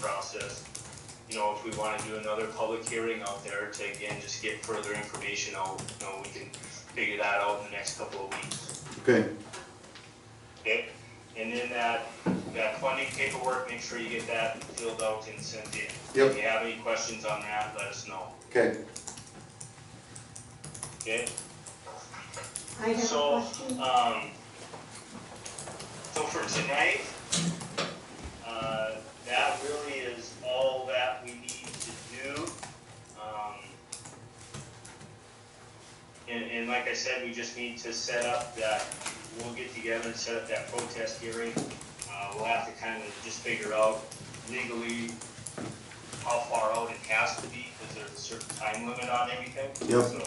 process. You know, if we wanna do another public hearing out there to again, just get further information out, you know, we can figure that out in the next couple of weeks. Okay, Okay, and then that, that funding paperwork, make sure you get that filled out and sent in. Yep. If you have any questions on that, let us know, okay. okay? I have a So, question. um, so for tonight, uh, that really is all that we need to do. Um, And, and like I said, we just need to set up that, we'll get together and set up that protest hearing. Uh, we'll have to kind of just figure out legally how far out it has to be, because there's a certain time limit on everything. Yep. So,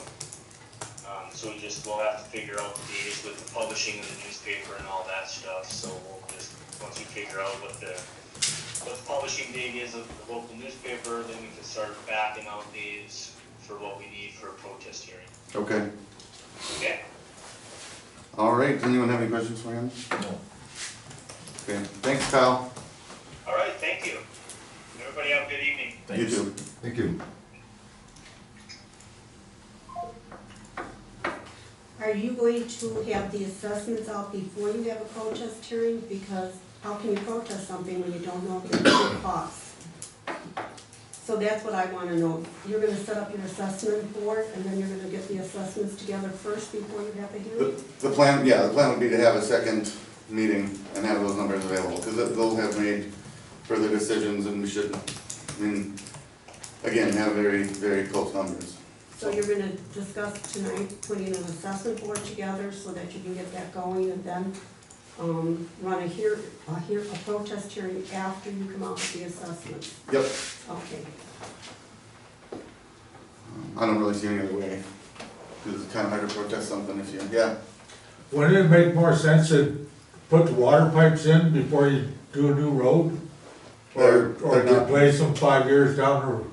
um, so we just, we'll have to figure out the days with the publishing of the newspaper and all that stuff, so we'll just, once we figure out what the, what the publishing date is of the local newspaper, then we can start backing out days for what we need for a protest hearing, Okay, okay? all right, does anyone have any questions for him? Okay, thanks Kyle, All right, thank you. Everybody have a good evening. you too. Thank you. Are you going to have the assessments out before you have a protest hearing? Because how can you protest something when you don't know the actual cost? So that's what I wanna know. You're gonna set up your assessment board, and then you're gonna get the assessments together first before you have the hearing? The the plan, yeah, the plan would be to have a second meeting and have those numbers available, because they'll have made further decisions and we should, I mean, again, have very, very close numbers. So you're gonna discuss tonight, putting an assessment board together so that you can get that going, and then, um, run a hear, a hear, a protest hearing after you come out with the assessments. Yep, Okay. I don't really see any other way, because it's kind of hard to protest something if you, yeah, Wouldn't it make more sense to put the water pipes in before you do a new road? They're- Or, or they're not- replace them five years down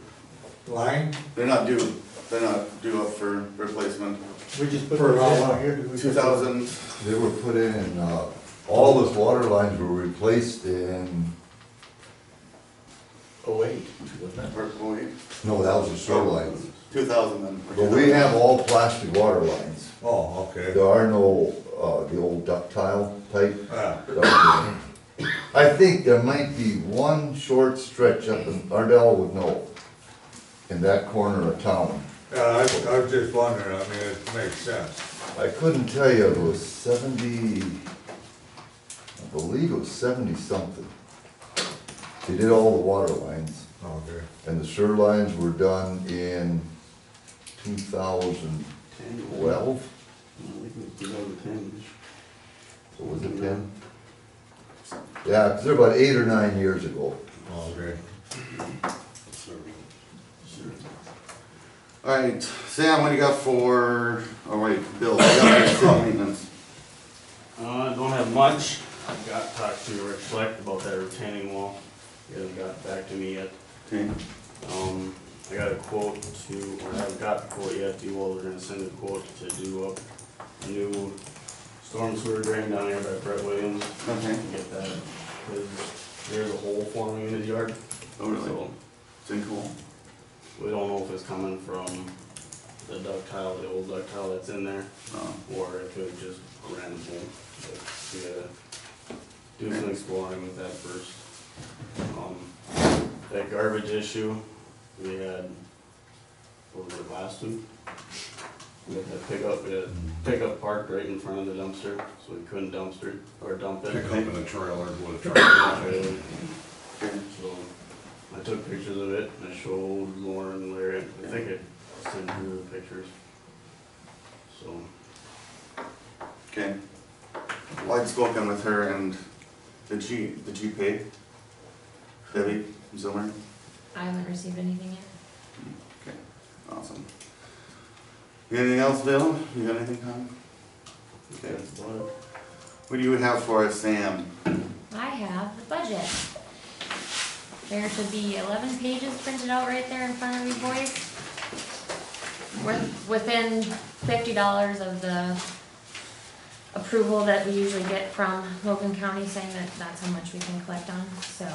the line? they're not due, they're not due up for replacement. We just put For those how in. long? Here, did we- Two thousand, They were put in, uh, all those water lines were replaced in, Oh, eight, wasn't it? or, oh, wait, no, that was the sewer lines. two thousand then. But we have all plastic water lines. Oh, okay. There are no, uh, the old ductile type. Ah, I think there might be one short stretch up in, Ardell would know, in that corner of town. Yeah, I, I was just wondering, I mean, it makes sense. I couldn't tell you, it was seventy, I believe it was seventy something. They did all the water lines, Okay. and the sewer lines were done in two thousand twelve, or was it ten? Yeah, 'cause they're about eight or nine years ago. Okay. All right, Sam, what do you got for, oh wait, Bill, what do you got for city maintenance? Uh, I don't have much. I got talked to Rick Fleck about that retaining wall. He hasn't got back to me yet. Okay, Um, I got a quote to, or I haven't got the quote yet, the Walter gonna send a quote to do up a new storm sewer drain down there by Brett Williams. okay, and Get that, cause there's a hole forming in his yard. oh really, So sinkhole, We don't know if it's coming from the ductile, the old ductile that's in there, oh, or if it just ran full. But we gotta do some exploring with that first. Um, That garbage issue, we had, what was it, last week? We had that pickup, we had a pickup parked right in front of the dumpster, so we couldn't dumpster, or dump it. Pick up in a trailer with a So okay, I took pictures of it, and I showed Lauren, Larry, I think I sent her the pictures. So, okay. Well, I'd spoken with her and, did she, did she pay? Debbie Zimmer, I haven't received anything yet. awesome. You got anything else, Bill, you got anything, Tom? Okay, that's about it. what do you have for us, Sam? I have the budget. There should be eleven pages printed out right there in front of you boys. We're within fifty dollars of the approval that we usually get from Logan County saying that that's how much we can collect on, so.